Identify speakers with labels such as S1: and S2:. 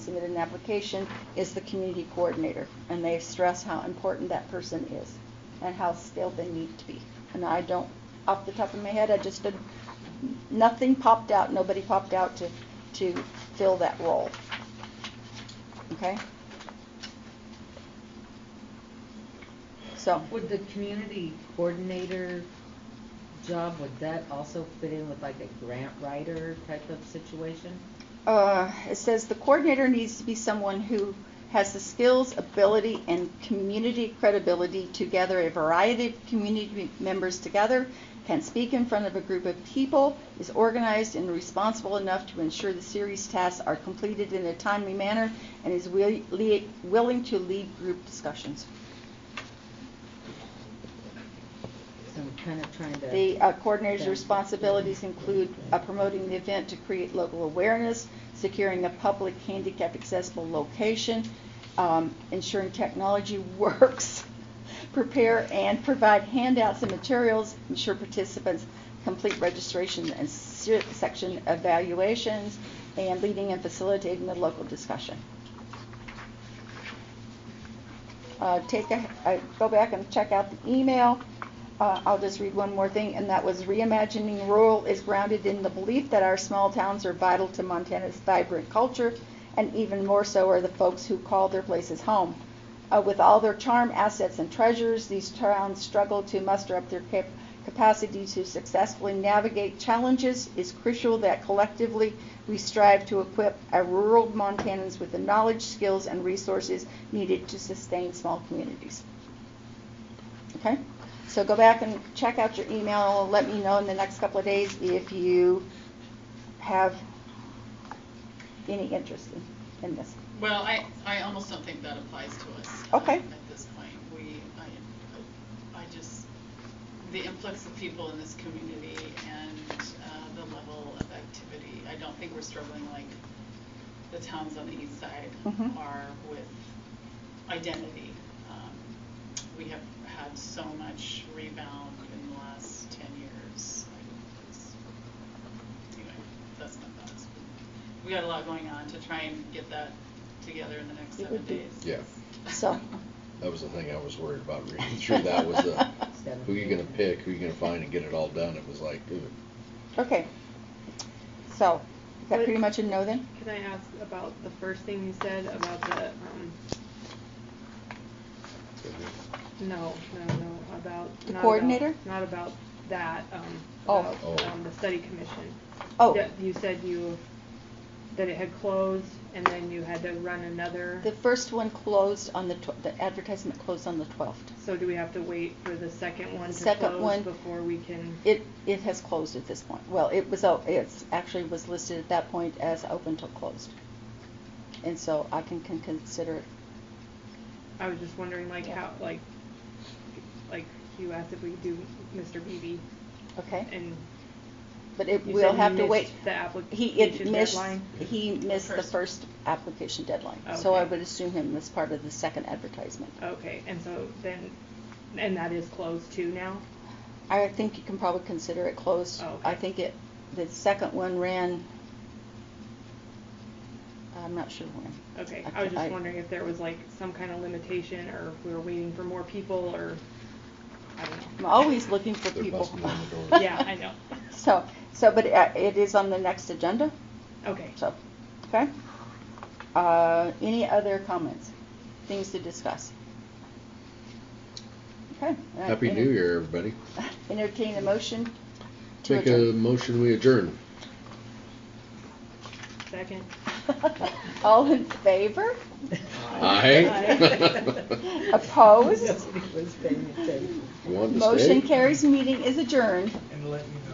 S1: submitted an application is the community coordinator. And they stress how important that person is and how skilled they need to be. And I don't, off the top of my head, I just did, nothing popped out, nobody popped out to, to fill that role. Okay? So,
S2: Would the community coordinator job, would that also fit in with like a grant writer type of situation?
S1: uh, it says the coordinator needs to be someone who has the skills, ability, and community credibility to gather a variety of community members together, can speak in front of a group of people, is organized and responsible enough to ensure the series tasks are completed in a timely manner, and is wi- lia- willing to lead group discussions.
S2: So I'm kind of trying to.
S1: The uh, coordinator's responsibilities include uh, promoting the event to create local awareness, securing a public handicap accessible location, um, ensuring technology works, prepare and provide handouts and materials, ensure participants complete registration and se- section evaluations, and leading and facilitating the local discussion. Uh, Take a, uh, go back and check out the email. Uh, I'll just read one more thing, and that was reimagining rural is grounded in the belief that our small towns are vital to Montana's vibrant culture, and even more so are the folks who call their places home. Uh, with all their charm, assets, and treasures, these towns struggle to muster up their cap- capacity to successfully navigate challenges. It's crucial that collectively we strive to equip our rural Montanans with the knowledge, skills, and resources needed to sustain small communities. Okay? So go back and check out your email. Let me know in the next couple of days if you have any interest in, in this.
S3: Well, I, I almost don't think that applies to us. uh,
S1: Okay.
S3: At this point, we, I, I just, the influx of people in this community and uh, the level of activity, I don't think we're struggling like the towns on the east side
S1: Mhm.
S3: are with identity. Um, We have had so much rebound in the last ten years. I- it's- Anyway, that's not that. We got a lot going on to try and get that together in the next
S1: It
S3: seven
S1: would be-
S3: days.
S4: Yeah.
S1: So-
S4: That was the thing I was worried about reading through that was the, who you gonna pick, who you gonna find and get it all done. It was like, ooh.
S1: Okay. So, is that
S5: What-
S1: pretty much a no then?
S5: Can I ask about the first thing you said about the, um, no, no, no, about.
S1: The
S5: not about-
S1: coordinator?
S5: Not about that, um,
S1: Oh.
S5: about,
S4: Oh.
S5: um, the study commission.
S1: Oh,
S5: That You said you, that it had closed and then you had to run another.
S1: the first one closed on the, tw- the advertisement closed on the 12th.
S5: So do we have to wait for the second one to
S1: Second one-
S5: close before we can?
S1: It, it has closed at this point. Well, it was, o- it's actually was listed at that point as open till closed. And so I can, can consider it
S5: I was just wondering like
S1: Yeah.
S5: how, like, like you asked if we could do Mr. Beebe
S1: Okay,
S5: and
S1: but it
S5: You
S1: will
S5: said
S1: have
S5: he
S1: to
S5: missed
S1: wait.
S5: the
S1: He- it
S5: application
S1: missed-
S5: deadline?
S1: He missed the
S3: First.
S1: first application deadline, so I
S5: Okay.
S1: would assume him as part of the second advertisement.
S5: Okay, and so then, and that is closed too now?
S1: I think you can probably consider it closed.
S5: Oh,
S1: I
S5: okay.
S1: think it, the second one ran, I'm not sure when.
S5: Okay, I was
S1: I-
S5: just wondering if there was like some kind of limitation or if we were waiting for more people or, I don't
S1: I'm
S5: know.
S1: always looking for
S4: They're
S1: people.
S4: busting down the door.
S5: Yeah, I know.
S1: So, so, but uh, it is on the next agenda,
S5: Okay,
S1: so, okay? Uh, any other comments, things to discuss? Okay. uh,
S4: Happy
S1: any-
S4: New Year, everybody.
S1: Entertain a motion to
S4: Make a
S1: adjourn.
S4: motion, we adjourn.
S5: second.
S1: All in favor?
S4: Aye.
S1: Opposed?
S2: Nobody was paying attention.
S4: You want to stay?
S1: Motion carries, meeting is adjourned.
S6: and let me know